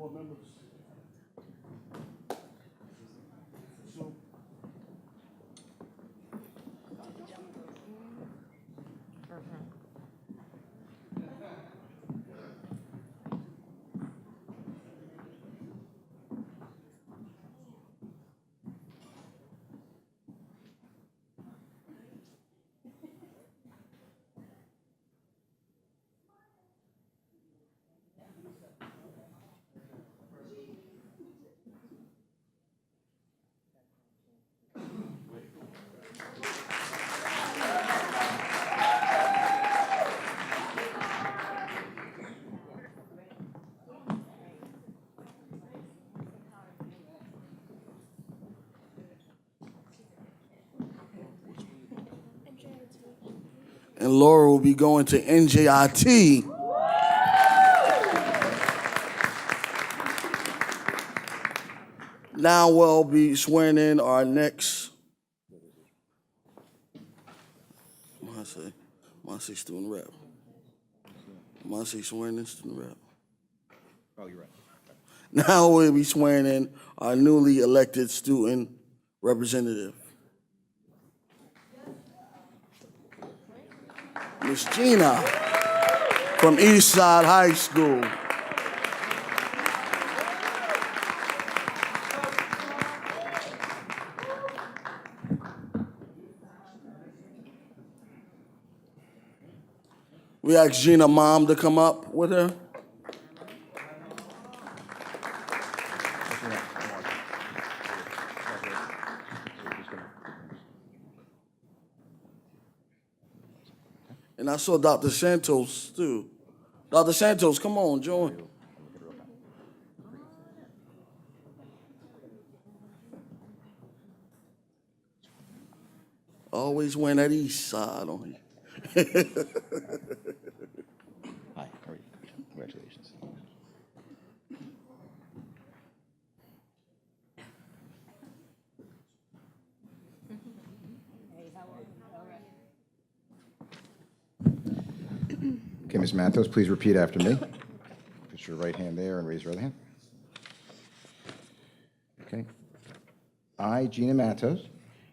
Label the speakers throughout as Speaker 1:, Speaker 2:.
Speaker 1: Oh,
Speaker 2: and Laura will be going to NJIT. Now we'll be swearing in our next, what I say, my say student rep. My say swearing in student rep.
Speaker 3: Oh, you're right.
Speaker 2: Now we'll be swearing in our newly elected student representative. Miss Gina from Eastside High School. We asked Gina mom to come up with her. And I saw Dr. Santos too. Dr. Santos, come on, join. Always went at east side on you.
Speaker 3: Hi, how are you? Congratulations. Okay, Ms. Mathos, please repeat after me. Put your right hand there and raise your other hand. Okay. I, Gina Mathos,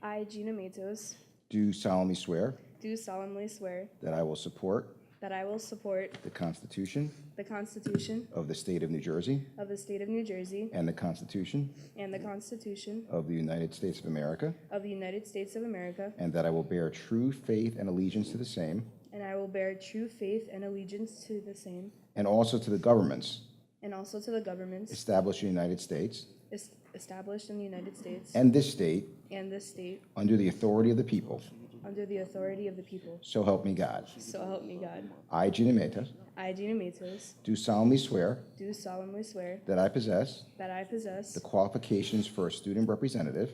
Speaker 1: I, Gina Matos,
Speaker 3: do solemnly swear
Speaker 1: do solemnly swear
Speaker 3: that I will support
Speaker 1: that I will support
Speaker 3: the Constitution
Speaker 1: the Constitution
Speaker 3: of the State of New Jersey
Speaker 1: of the State of New Jersey
Speaker 3: and the Constitution
Speaker 1: and the Constitution
Speaker 3: of the United States of America,
Speaker 1: of the United States of America,
Speaker 3: and that I will bear true faith and allegiance to the same,
Speaker 1: and I will bear true faith and allegiance to the same,
Speaker 3: and also to the governments
Speaker 1: and also to the governments
Speaker 3: established in the United States
Speaker 1: es- established in the United States
Speaker 3: and this state
Speaker 1: and this state
Speaker 3: under the authority of the people.
Speaker 1: under the authority of the people.
Speaker 3: So help me God.
Speaker 1: So help me God.
Speaker 3: I, Gina Matos,
Speaker 1: I, Gina Matos,
Speaker 3: do solemnly swear
Speaker 1: do solemnly swear
Speaker 3: that I possess
Speaker 1: that I possess
Speaker 3: the qualifications for a student representative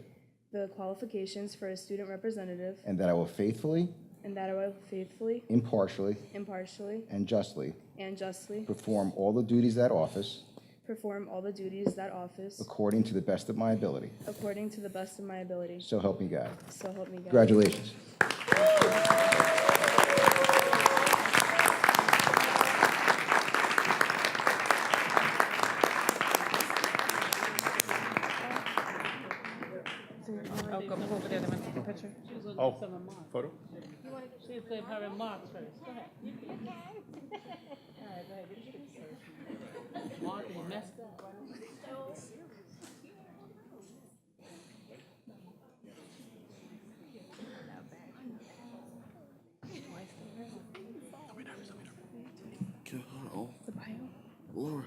Speaker 1: the qualifications for a student representative
Speaker 3: and that I will faithfully,
Speaker 1: and that I will faithfully,
Speaker 3: impartially,
Speaker 1: impartially,
Speaker 3: and justly
Speaker 1: and justly
Speaker 3: perform all the duties of that office
Speaker 1: Perform all the duties that office
Speaker 3: according to the best of my ability.
Speaker 1: according to the best of my ability.
Speaker 3: So help me God.
Speaker 1: So help me God.
Speaker 3: Congratulations.
Speaker 4: Oh, go over there, let me take a picture.
Speaker 5: Oh, photo?
Speaker 4: She gave her remarks first, go ahead. You can. All right, go ahead, what you say? Mark is messed up.
Speaker 2: Give her all. Laura.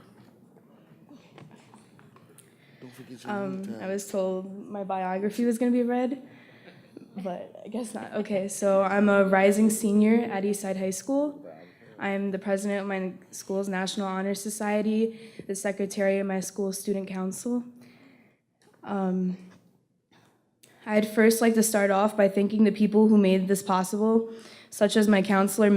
Speaker 2: Don't forget your name
Speaker 1: Mm-hmm. I was told my biography was going to be read, but I guess not. Okay, so I'm a rising senior at Eastside High School. I'm the president of my school's National Honor Society, the secretary of my school's student council. Um, I'd first like to start off by thanking the people who made this possible, such as my counselor,